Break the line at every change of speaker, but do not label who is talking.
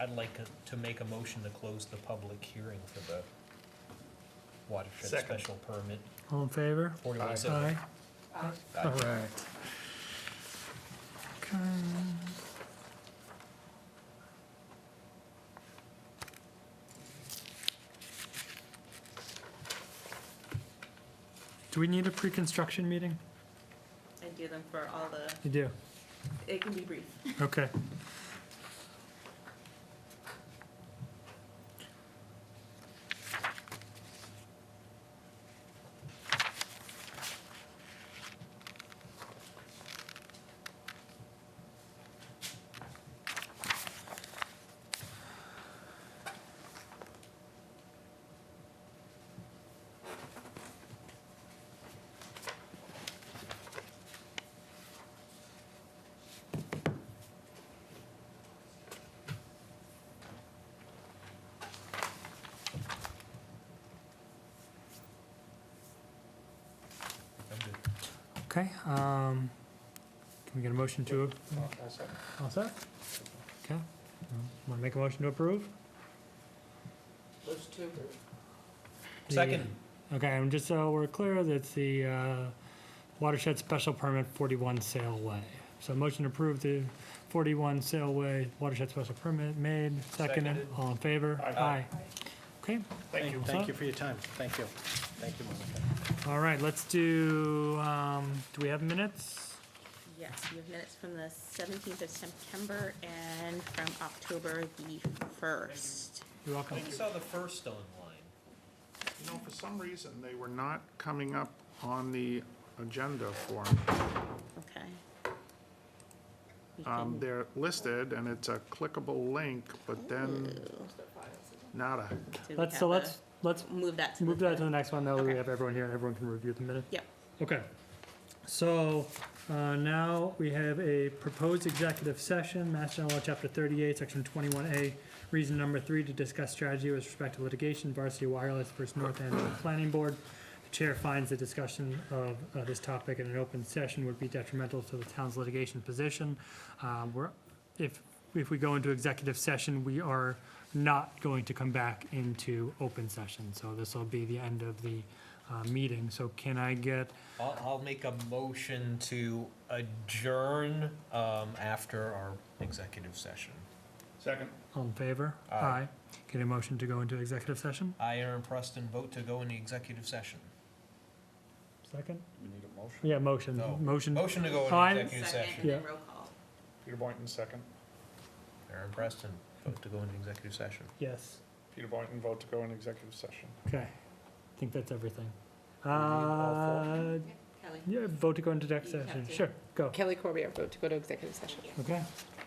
I'd like to- to make a motion to close the public hearing for the watershed
Second.
special permit,
All in favor?
forty-one
Aye.
seventy.
All right. Okay. Do we need a pre-construction meeting?
I do them for all the,
You do,
it can be brief.
okay.
I'm good.
Okay, um, can we get a motion to, all set? Okay, wanna make a motion to approve?
Those two,
The- uh,
Second,
Okay, and just so we're clear, that's the uh, watershed special permit 41 Sailway. So motion to approve the 41 Sailway watershed special permit made, seconded,
Seconded.
all in favor?
Aye.
Okay,
Thank you,
Thank you,
thank
sir.
you for your time. Thank you. Thank you, Monica.
all right, let's do, um, do we have minutes?
Yes, we have minutes from the seventeenth of September and from October the first.
You're
I
welcome.
saw the first online.
You know, for some reason, they were not coming up on the agenda Um, for me.
Okay. We
Um,
can-
They're listed, and it's a clickable link, but then
Ooh,
nada.
do we
Let's,
have
so
a-
let's, let's
Move that to the.
move that to
third?
the next one, that way we
Okay.
have everyone here and everyone can review the minutes.
Yep,
Okay, so uh, now we have a proposed executive session, Mass General Law, Chapter 38, Section 21A, reason number three, to discuss strategy with respect to litigation, Varsity Wireless versus North End Planning Board. The chair finds the discussion of uh, this topic in an open session would be detrimental to the town's litigation position. Uh, We're, if, if we go into executive session, we are not going to come back into open session. So this will be the end of the uh, meeting. So can I get
I'll, I'll make a motion to adjourn, um, after our executive session.
Second.
All in favor?
Aye.
Get a motion to go into executive session?
I, Aaron Preston, vote to go in the executive session.
Second?
We need a motion.
Yeah, motion,
No.
motion.
Motion to go
Aye.
in executive
second,
session.
and then roll call.
Peter Boynton, second.
Aaron Preston, vote to go in executive session.
Yes,
Peter Boynton, vote to go in executive session.
okay. I think that's everything.
need all
Uh,
Kelly.
yeah, vote to go into executive
You have
session,
to.
sure, go.
Kelly Corbier vote to go to executive session.
Okay,